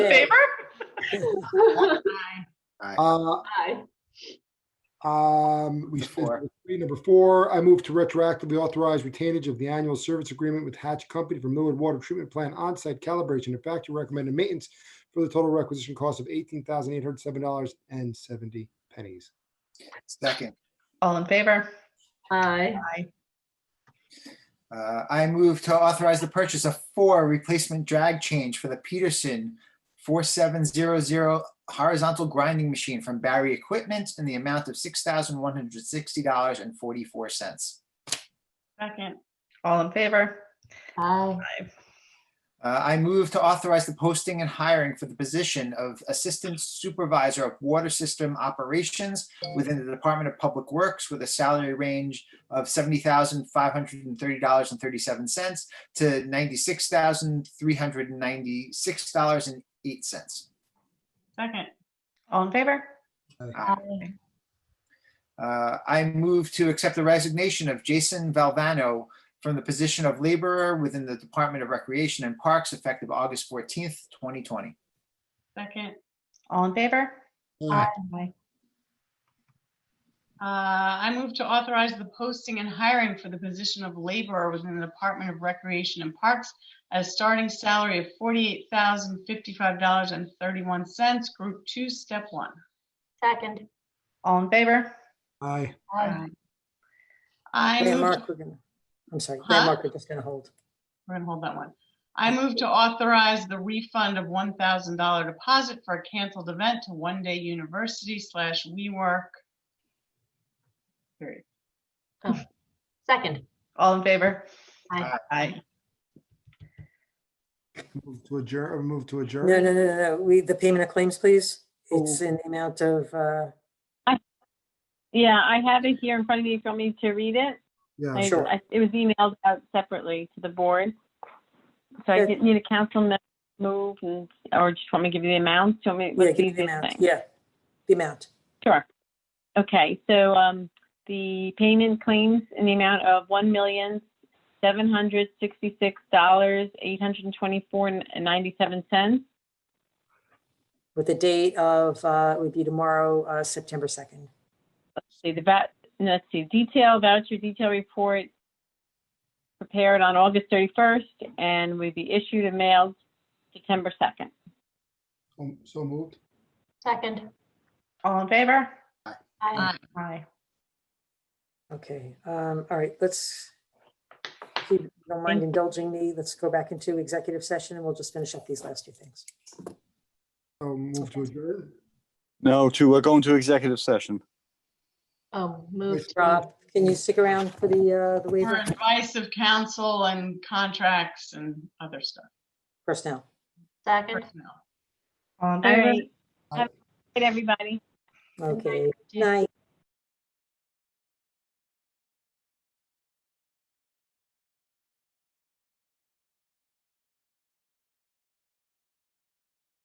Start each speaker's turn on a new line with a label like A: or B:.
A: favor?
B: Uh,
C: Aye.
B: Um, we,
D: Four.
B: three, number four, I move to retroactively authorize retainage of the annual service agreement with Hatch Company for Millwood Water Treatment Plant on-site calibration and factory recommended maintenance for the total requisition cost of eighteen thousand eight hundred seven dollars and seventy pennies.
D: Second,
A: All in favor?
C: Aye.
A: Aye.
D: uh, I move to authorize the purchase of four replacement drag change for the Peterson 4700 horizontal grinding machine from Barry Equipment in the amount of $6,160.44.
A: Second. All in favor?
C: Aye.
D: Uh, I move to authorize the posting and hiring for the position of Assistant Supervisor of Water System Operations within the Department of Public Works with a salary range of seventy thousand five hundred and thirty dollars and thirty-seven cents to ninety-six thousand three hundred and ninety-six dollars and eight cents.
A: Second. All in favor?
D: Uh, I move to accept the resignation of Jason Valvano from the position of laborer within the Department of Recreation and Parks effective August fourteenth, twenty twenty.
A: Second. All in favor?
B: Aye.
A: Aye.
E: Uh, I move to authorize the posting and hiring for the position of laborer within the Department of Recreation and Parks at a starting salary of forty-eight thousand fifty-five dollars and thirty-one cents, Group Two, Step One.
C: Second.
A: All in favor?
B: Aye.
C: Aye.
E: I
F: Grant
E: move, to-
F: Mark, we're gonna, I'm sorry,
E: Huh?
F: Grant Mark, we're just gonna hold.
E: we're gonna hold that one. I move to authorize the refund of one thousand dollar deposit for a canceled event to One Day University slash WeWork. Period.
C: Second.
A: All in favor?
C: Aye.
A: Aye.
B: Move to adjourn, or move to adjourn?
F: No, no, no, no, no, we, the payment of claims, please. It's
B: Oh.
F: in the amount of, uh,
G: Yeah, I have it here in front of me. If you want me to read it,
B: Yeah,
G: I,
F: sure.
G: I, it was emailed out separately to the board. So I
F: Yeah.
G: didn't need a council member to move and, or just want me to give you the amount? Do you want me?
F: yeah,
G: what's the
F: give me the
G: easiest
F: amount,
G: thing?
F: yeah, the amount.
G: Sure. Okay, so, um, the payment claims in the amount of one million, seven hundred sixty-six dollars, eight hundred and twenty-four and ninety-seven cents.
F: With the date of, uh, it would be tomorrow, uh, September 2nd.
G: see, the va, no, let's see, detail voucher detail report prepared on August 31st and will be issued and mailed September 2nd.
B: So- um, so moved.
C: Second.
A: All in favor?
C: Aye.
A: Aye.
F: Okay, um, all right, let's, if you don't mind indulging me, let's go back into executive session and we'll just finish up these last two things.
B: So move to adjourn.
H: No, to, we're going to executive session.
C: Oh, move. to-
F: Rob, can you stick around for the, uh, the
E: For
F: waiver
E: advice of counsel and contracts and other stuff.
F: personnel?
C: Second.
E: personnel.
A: All in
G: All
A: favor?
G: right. Have a good night, everybody.
F: Okay,
C: Jane.
F: night.